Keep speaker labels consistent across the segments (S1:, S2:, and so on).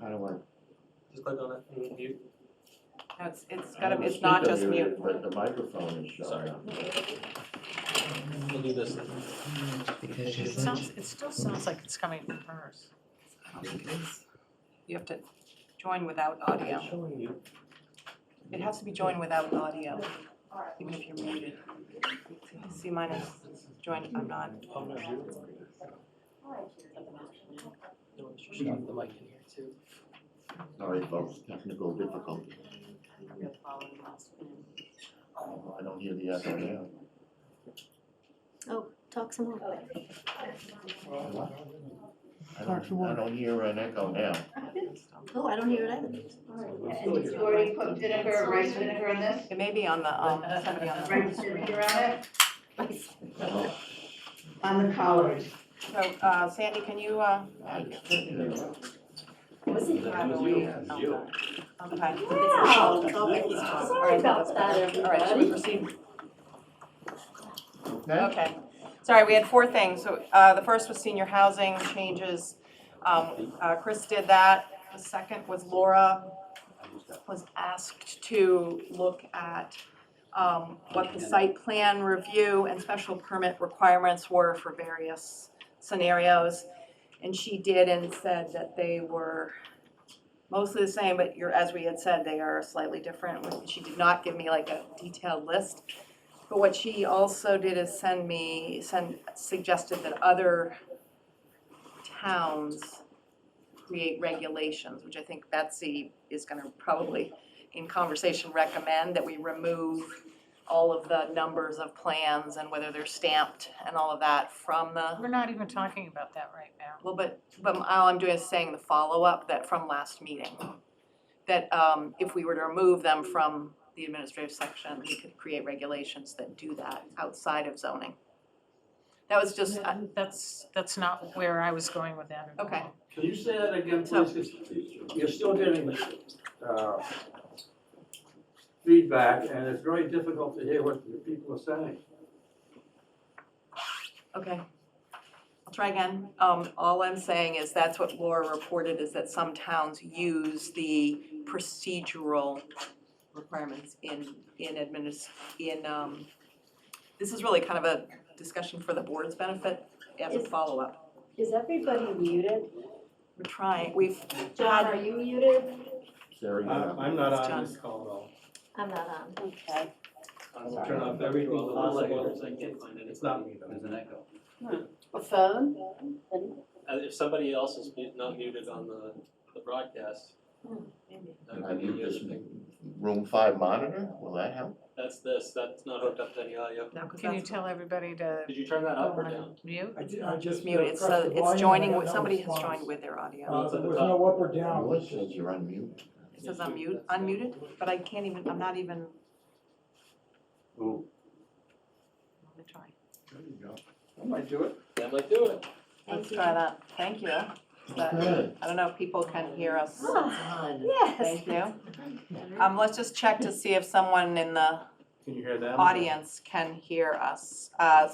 S1: don't wanna.
S2: Just click on it and mute.
S3: No, it's, it's
S1: I
S3: gotta,
S1: don't
S3: be-
S1: wanna
S3: it's not
S1: speak
S3: just
S1: over you,
S3: mute.
S1: But the microphone is shut
S2: Sorry.
S1: off.
S2: We'll do this.
S4: Because
S3: It sounds, it still sounds like it's coming from hers. I don't think it is. You have to join without audio.
S1: It's showing you.
S3: It has to be joined without audio, even if you're muted. See, mine is joined, I'm not.
S2: I'm gonna do it. No, she should have the mic in here too.
S1: Sorry, folks, technical difficulty. Oh, I don't hear the echo now.
S5: Talk some more.
S1: I don't, I don't hear an echo now.
S5: Oh, I don't hear it either.
S6: And you already put vinegar, rice vinegar in this,
S3: It may be on the, um, somebody on
S6: rice
S3: the.
S6: vinegar on it,
S1: Oh,
S6: on the collard.
S3: So, uh, Sandy, can you, uh?
S1: I can't.
S5: Was it?
S2: That was you.
S3: Okay. Okay. Oh,
S5: Wow. Sorry about
S3: All
S5: that,
S3: right, should we
S5: everybody.
S3: proceed?
S1: Okay.
S3: Okay, sorry, we had four things, so, uh, the first was senior housing changes, um, uh, Chris did that. The second was Laura was asked to look at, um, what the site plan review and special permit requirements were for various scenarios. And she did and said that they were mostly the same, but you're, as we had said, they are slightly different. She did not give me like a detailed list, but what she also did is send me, send, suggested that other towns create regulations, which I think Betsy is gonna probably, in conversation, recommend that we remove all of the numbers of plans and whether they're stamped and all of that from the
S7: We're not even talking about that right now.
S3: well, but, but all I'm doing is saying the follow-up that from last meeting. That um, if we were to remove them from the administrative section, we could create regulations that do that outside of zoning. That was just, uh,
S7: That's, that's not where I was going with that at all.
S3: Okay.
S8: Can you say that again,
S3: So-
S8: please? 'Cause You're still getting, uh, feedback, and it's very difficult to hear what the people are saying.
S3: uh, okay. I'll try again. Um, All I'm saying is that's what Laura reported, is that some towns use the procedural requirements in, in adminis, in, um, this is really kind of a discussion for the board's benefit as a
S5: Is-
S3: follow-up.
S5: Is everybody muted?
S3: We're trying, we've,
S5: John,
S3: Um,
S5: are you muted?
S1: Sarah, you're up.
S4: Uh, I'm not
S3: It's John.
S4: on this call at all.
S5: I'm not
S3: um,
S5: on.
S3: okay,
S4: I'll turn off everything possible. It's not me though.
S9: There's an echo.
S6: A phone?
S2: Uh, if somebody else is mute- not muted on the, the broadcast, that
S1: Can I
S2: could be
S1: mute
S2: the other
S1: this
S2: thing.
S1: room five monitor? Will that help?
S2: That's this, that's not hooked up to any audio.
S3: no, because
S7: Can you
S3: that's,
S7: tell everybody to
S2: Did you turn that
S7: go
S2: up or
S7: on
S2: down?
S7: mute?
S10: I did, I
S3: it's
S10: just.
S3: muted, it's
S10: pressed the
S3: so it's
S10: volume
S3: joining,
S10: and I
S3: with
S10: got no
S3: somebody has
S10: response.
S3: joined with their audio.
S10: Uh, there was no up or down.
S1: Well, it says you're unmute.
S3: It says unmute, unmuted, but I can't even, I'm not even.
S8: Ooh.
S3: Let me try.
S1: Oh, There you go.
S8: I might do it.
S2: That might do it.
S3: Let's try that, thank you. But
S1: Good.
S3: I don't know if people can hear us.
S5: Yes.
S3: Thank you. Um, let's just check to see if someone in the
S4: Can you hear them?
S3: audience can hear us. Uh,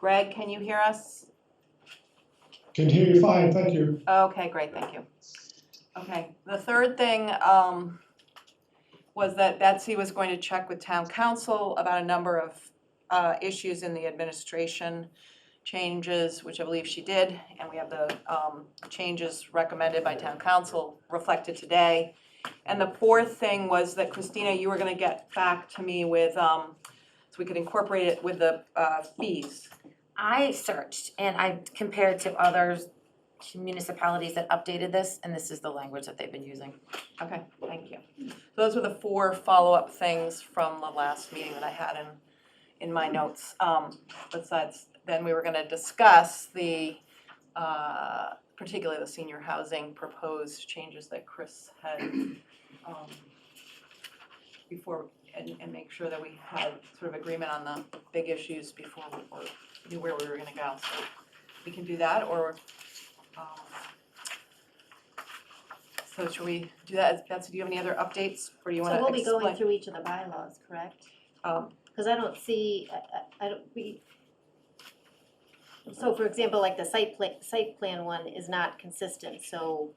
S3: Greg, can you hear us?
S10: Can hear you fine, thank you.
S3: Okay, great, thank you. Okay, the third thing, um, was that Betsy was going to check with town council about a number of, uh, issues in the administration changes, which I believe she did, and we have the, um, changes recommended by town council reflected today. And the fourth thing was that Christina, you were gonna get back to me with, um, so we could incorporate it with the, uh, fees.
S11: I searched and I compared to other municipalities that updated this, and this is the language that they've been using.
S3: Okay, thank you. Those were the four follow-up things from the last meeting that I had in, in my notes. Um, Besides, then we were gonna discuss the, uh, particularly the senior housing proposed changes that Chris had um, before, and, and make sure that we had sort of agreement on the big issues before we were, knew where we were gonna go. So we can do that, or, um, so should we do that? Betsy, do you have any other updates, or do you wanna
S5: So we'll
S3: explain?
S5: be going through each of the bylaws, correct?
S3: Um,
S5: Because I don't see, I- I, I don't, we. So for example, like the site pla, site plan one is not consistent, so